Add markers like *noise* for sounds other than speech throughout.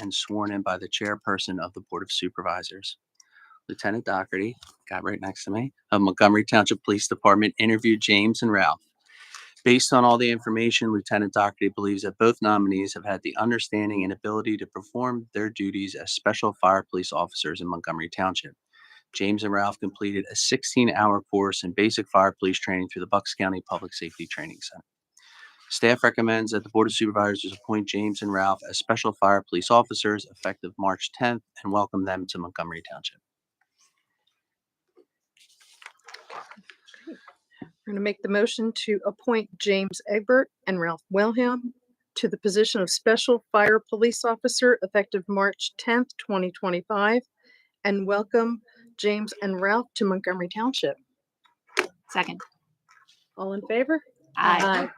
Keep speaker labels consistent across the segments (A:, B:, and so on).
A: and sworn in by the chairperson of the Board of Supervisors. Lieutenant Doherty, guy right next to me, of Montgomery Township Police Department interviewed James and Ralph. Based on all the information, Lieutenant Doherty believes that both nominees have had the understanding and ability to perform their duties as special fire police officers in Montgomery Township. James and Ralph completed a 16-hour course in basic fire police training through the Bucks County Public Safety Training Center. Staff recommends that the Board of Supervisors appoint James and Ralph as special fire police officers effective March 10th and welcome them to Montgomery Township.
B: We're going to make the motion to appoint James Egbert and Ralph Wilhelm to the position of Special Fire Police Officer effective March 10th, 2025, and welcome James and Ralph to Montgomery Township.
C: Second.
B: All in favor?
C: Aye.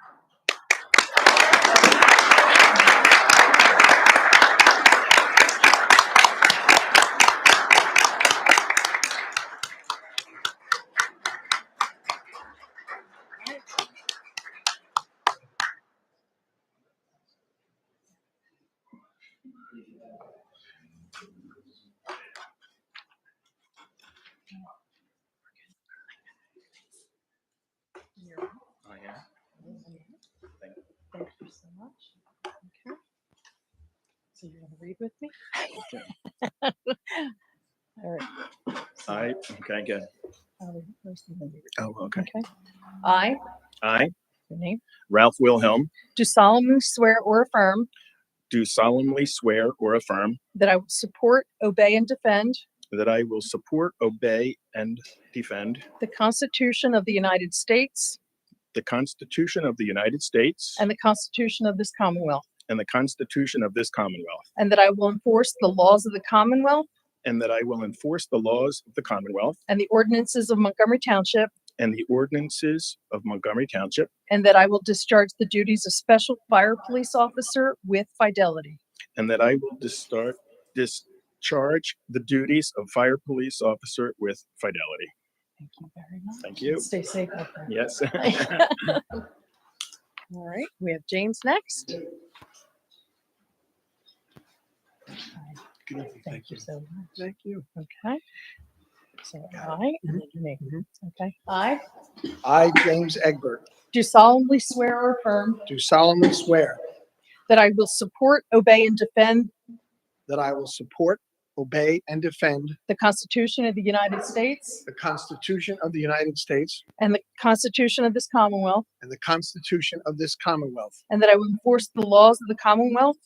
B: Thank you so much. Okay. So you're going to read with me? All right. So,
D: Aye. Okay, good.
B: I'll read first and then you read.
D: Oh, okay.
B: Okay. I,
D: I,
B: your name,
D: Ralph Wilhelm,
B: do solemnly swear or affirm
D: do solemnly swear or affirm
B: That I will support, obey, and defend
D: that I will support, obey, and defend
B: the Constitution of the United States
D: the Constitution of the United States
B: and the Constitution of this Commonwealth,
D: and the Constitution of this Commonwealth,
B: and that I will enforce the laws of the Commonwealth
D: and that I will enforce the laws of the Commonwealth
B: and the ordinances of Montgomery Township,
D: and the ordinances of Montgomery Township,
B: and that I will discharge the duties of Special Fire Police Officer with fidelity.
D: and that I will distar- discharge the duties of fire police officer with fidelity.
B: Thank you very much.
D: Thank you.
B: Stay safe out there.
D: Yes. *laughs*
B: *laughs* All right, we have James next. Thank you so much.
D: Thank you.
B: Okay. So I, and then your name. Okay. I
E: I, James Egbert,
B: do solemnly swear or affirm
E: do solemnly swear
B: that I will support, obey, and defend
E: that I will support, obey, and defend
B: the Constitution of the United States
E: the Constitution of the United States
B: and the Constitution of this Commonwealth,
E: and the Constitution of this Commonwealth,
B: and that I will enforce the laws of the Commonwealth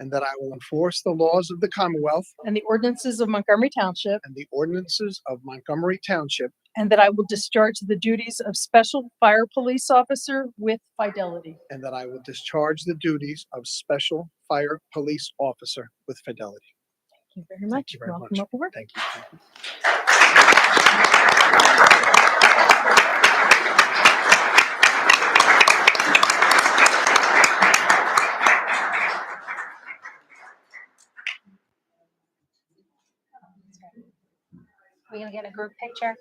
E: and that I will enforce the laws of the Commonwealth
B: and the ordinances of Montgomery Township,
E: and the ordinances of Montgomery Township,
B: and that I will discharge the duties of Special Fire Police Officer with fidelity.
E: and that I will discharge the duties of Special Fire Police Officer with fidelity.
B: Thank you very much.
E: you very
B: Welcome
E: much.
B: aboard.
E: Thank you. Thank you.
C: We gonna get a group picture?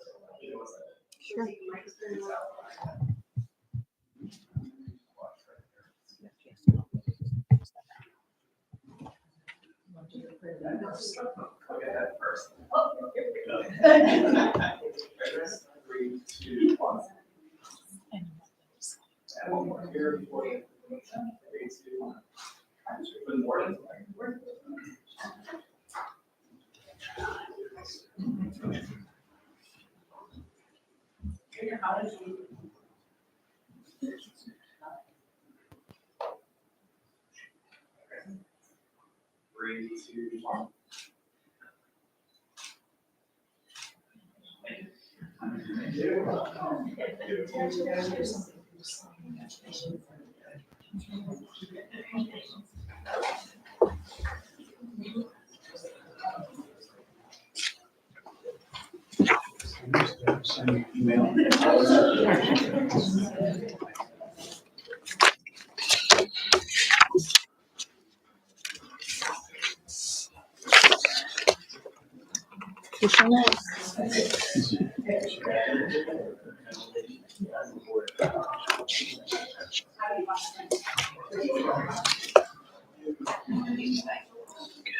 B: *laughs*